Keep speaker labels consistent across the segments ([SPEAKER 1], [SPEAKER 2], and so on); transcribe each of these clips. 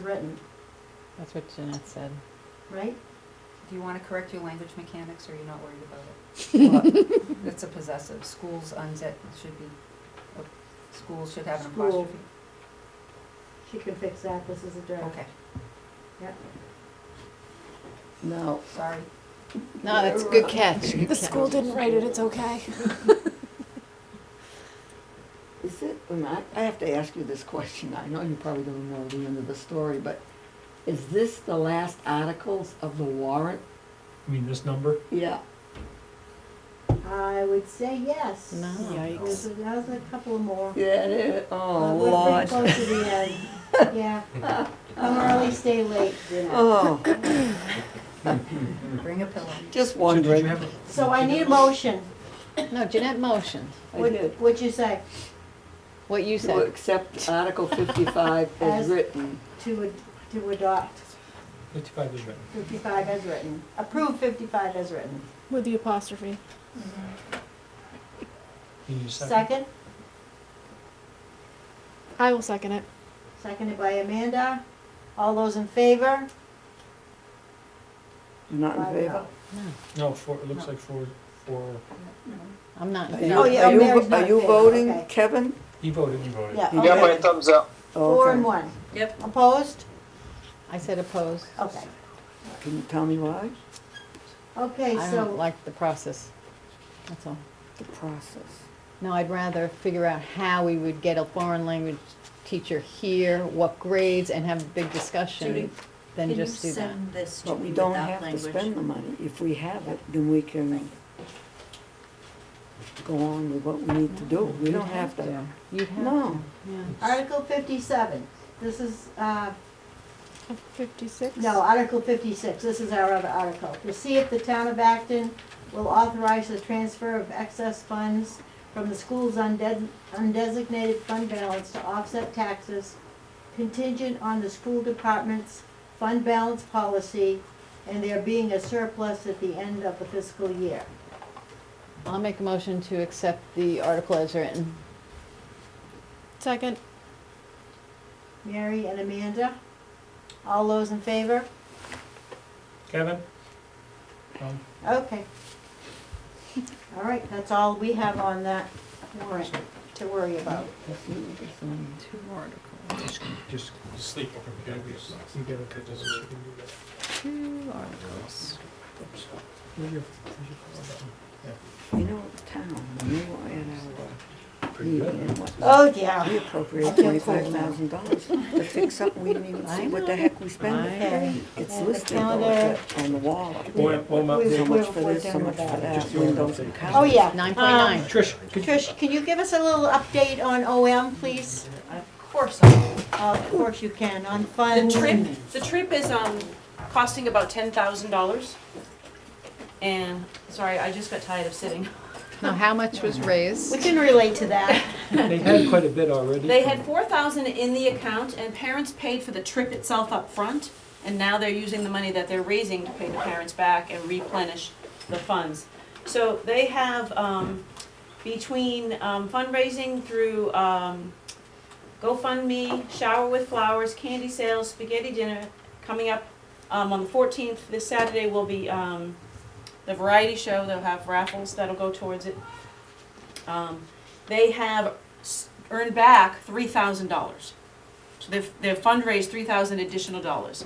[SPEAKER 1] threatened,
[SPEAKER 2] That's what Jeanette said.
[SPEAKER 1] right?
[SPEAKER 3] Do you want to correct your language mechanics, or are you not worried about it? It's a possessive. Schools unzip should be, uh, schools should have an
[SPEAKER 1] School.
[SPEAKER 3] apostrophe.
[SPEAKER 1] She can fix that, this is a draft.
[SPEAKER 3] Okay,
[SPEAKER 1] Yep.
[SPEAKER 2] No.
[SPEAKER 3] sorry.
[SPEAKER 2] No, that's a good catch.
[SPEAKER 4] The school didn't write it, it's okay.
[SPEAKER 5] Is it, and I, I have to ask you this question, I know you probably don't know the end of the story, but is this the last articles of the warrant?
[SPEAKER 6] I mean, this number,
[SPEAKER 5] Yeah,
[SPEAKER 1] I would say yes.
[SPEAKER 2] No.
[SPEAKER 1] There's,
[SPEAKER 2] Yikes.
[SPEAKER 1] a- there's a couple more.
[SPEAKER 5] yeah, it is. oh,
[SPEAKER 1] Uh,
[SPEAKER 5] Lord.
[SPEAKER 1] We're pretty close to the end, yeah. Come early, stay late, Jeanette.
[SPEAKER 5] Oh, Mm.
[SPEAKER 3] Bring a pillow.
[SPEAKER 5] just
[SPEAKER 6] so did
[SPEAKER 5] wondering.
[SPEAKER 6] you have, a-
[SPEAKER 1] So I need a motion.
[SPEAKER 2] No, Jeanette motioned.
[SPEAKER 5] I
[SPEAKER 1] What-
[SPEAKER 5] did.
[SPEAKER 1] What'd you say?
[SPEAKER 2] What you
[SPEAKER 5] To
[SPEAKER 2] said.
[SPEAKER 5] accept Article fifty-five
[SPEAKER 1] As-
[SPEAKER 5] as written.
[SPEAKER 1] To, ad- to adopt
[SPEAKER 6] fifty-five is right.
[SPEAKER 1] fifty-five as written, approve fifty-five as written.
[SPEAKER 4] With the apostrophe.
[SPEAKER 6] You need a second?
[SPEAKER 1] Second,
[SPEAKER 4] I will second it.
[SPEAKER 1] seconded by Amanda. All those in favor?
[SPEAKER 5] You're not
[SPEAKER 1] Five
[SPEAKER 5] in favor?
[SPEAKER 1] no.
[SPEAKER 2] No,
[SPEAKER 6] No, four, it looks
[SPEAKER 3] No.
[SPEAKER 6] like four, four,
[SPEAKER 2] I'm not. in
[SPEAKER 5] Are
[SPEAKER 2] favor.
[SPEAKER 5] you-
[SPEAKER 1] Oh, yeah,
[SPEAKER 5] are you vo-
[SPEAKER 1] Mary's not
[SPEAKER 5] Are you
[SPEAKER 1] in favor,
[SPEAKER 5] voting,
[SPEAKER 1] okay.
[SPEAKER 5] Kevin?
[SPEAKER 6] he voted. You
[SPEAKER 1] Yeah,
[SPEAKER 7] You got my
[SPEAKER 1] okay.
[SPEAKER 7] thumbs up.
[SPEAKER 1] Four and
[SPEAKER 5] Okay.
[SPEAKER 1] one.
[SPEAKER 3] Yep.
[SPEAKER 1] Opposed?
[SPEAKER 2] I said opposed.
[SPEAKER 1] Okay.
[SPEAKER 5] Can you tell me why?
[SPEAKER 1] Okay,
[SPEAKER 2] I don't
[SPEAKER 1] so,
[SPEAKER 2] like the process. That's all.
[SPEAKER 5] The process.
[SPEAKER 2] No, I'd rather figure out how we would get a foreign language teacher here, what grades, and have a big
[SPEAKER 8] Judy,
[SPEAKER 2] discussion than just do that.
[SPEAKER 8] Can you send this to
[SPEAKER 5] But we
[SPEAKER 8] me
[SPEAKER 5] don't
[SPEAKER 8] without
[SPEAKER 5] have to spend
[SPEAKER 8] language?
[SPEAKER 5] the money. If we have it, then we can go on with what we need to do. We
[SPEAKER 2] You'd
[SPEAKER 5] don't have to.
[SPEAKER 2] You'd have to,
[SPEAKER 5] No,
[SPEAKER 2] yeah.
[SPEAKER 1] Article fifty-seven, this is, uh,
[SPEAKER 4] Fifty-six?
[SPEAKER 1] No, Article fifty-six, this is our other article. To see if the town of Acton will authorize the transfer of excess funds from the school's unde- undesignated fund balance to offset taxes contingent on the school department's fund balance policy and there being a surplus at the end of the fiscal year.
[SPEAKER 2] I'll make a motion to accept the article as written.
[SPEAKER 4] Second.
[SPEAKER 1] Mary and Amanda, all those in favor?
[SPEAKER 6] Kevin? Um,
[SPEAKER 1] Okay. All right, that's all we have on that warrant to worry about.
[SPEAKER 2] Two articles.
[SPEAKER 6] just- Just sleep over here. You get it, that doesn't make you do that.
[SPEAKER 2] Two articles.
[SPEAKER 6] Oops. Where's your- where's your-
[SPEAKER 5] you know, town, when we were at our
[SPEAKER 6] Pretty
[SPEAKER 5] meeting
[SPEAKER 6] good.
[SPEAKER 5] and whatnot,
[SPEAKER 1] Oh,
[SPEAKER 8] Uh,
[SPEAKER 1] yeah.
[SPEAKER 5] we appropriated
[SPEAKER 1] I feel cold
[SPEAKER 5] twenty-five thousand dollars to fix something we didn't even see what the heck we spent it.
[SPEAKER 2] I-
[SPEAKER 5] It's
[SPEAKER 1] And the
[SPEAKER 5] listed though,
[SPEAKER 1] calendar.
[SPEAKER 5] at the- on the wall.
[SPEAKER 6] One- one more
[SPEAKER 1] We've-
[SPEAKER 5] So
[SPEAKER 6] update.
[SPEAKER 5] much
[SPEAKER 1] we've
[SPEAKER 5] for this, so
[SPEAKER 1] done
[SPEAKER 5] much for
[SPEAKER 1] about it.
[SPEAKER 5] that,
[SPEAKER 6] Just your
[SPEAKER 5] windows
[SPEAKER 6] update.
[SPEAKER 5] and counters.
[SPEAKER 1] Oh, yeah.
[SPEAKER 2] 9.9.
[SPEAKER 1] Um,
[SPEAKER 6] Trish, could you?
[SPEAKER 1] Trish, can you give us a little update on OM, please?
[SPEAKER 8] Of course, I will.
[SPEAKER 1] Of course you can, on
[SPEAKER 8] The
[SPEAKER 1] funds.
[SPEAKER 8] trip, the trip is, um, costing about ten thousand dollars. And, sorry, I just got tired of sitting.
[SPEAKER 2] Now, how much was raised?
[SPEAKER 1] We can relate to that.
[SPEAKER 6] They had quite a bit already.
[SPEAKER 8] They had four thousand in the account and parents paid for the trip itself up front. And now they're using the money that they're raising to pay the parents back and replenish the funds. So they have, um, between um, fundraising through, um, GoFundMe, shower with flowers, candy sales, spaghetti dinner, coming up, um, on the fourteenth, this Saturday will be, um, the variety show, they'll have raffles that'll go towards it. Um, they have s- earned back three thousand dollars. So they've, they've fundraised three thousand additional dollars.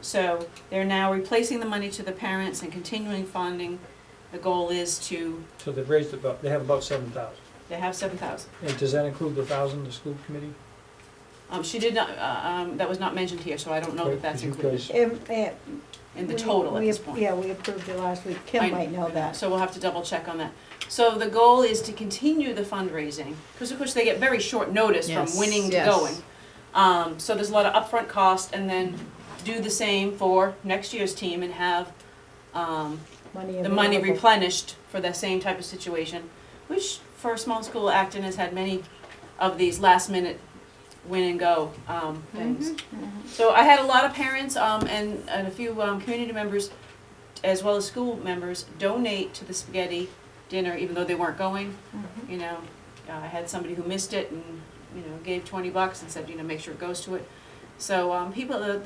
[SPEAKER 8] So they're now replacing the money to the parents and continuing funding. The goal is to,
[SPEAKER 6] So they've raised about, they have about seven thousand.
[SPEAKER 8] they have seven thousand.
[SPEAKER 6] And does that include the thousand, the school committee?
[SPEAKER 8] Um, she did not, uh, um, that was not mentioned here, so I don't know
[SPEAKER 6] Right,
[SPEAKER 8] that that's
[SPEAKER 6] 'cause you
[SPEAKER 8] included
[SPEAKER 6] guys-
[SPEAKER 1] Um, eh,
[SPEAKER 8] in the
[SPEAKER 1] we-
[SPEAKER 8] total at
[SPEAKER 1] we-
[SPEAKER 8] this point.
[SPEAKER 1] Yeah, we approved it last week. Kim
[SPEAKER 8] I-
[SPEAKER 1] might know that.
[SPEAKER 8] So we'll have to double check on that. So the goal is to continue the fundraising, because of course they get very short notice from
[SPEAKER 2] Yes,
[SPEAKER 8] winning to
[SPEAKER 2] yes.
[SPEAKER 8] going. Um, so there's a lot of upfront cost and then do the same for next year's team and have, um,
[SPEAKER 1] Money
[SPEAKER 8] the money
[SPEAKER 1] available.
[SPEAKER 8] replenished for that same type of situation, which for a small school, Acton has had many of these last minute win and go, um, things.
[SPEAKER 1] Mm-hmm.
[SPEAKER 8] So I had a lot of parents, um, and, and a few, um, community members, as well as school members, donate to the spaghetti dinner, even though they weren't going,
[SPEAKER 1] Mm-hmm.
[SPEAKER 8] you know. Uh, I had somebody who missed it and, you know, gave twenty bucks and said, you know, make sure it goes to it. So, um, people, the, the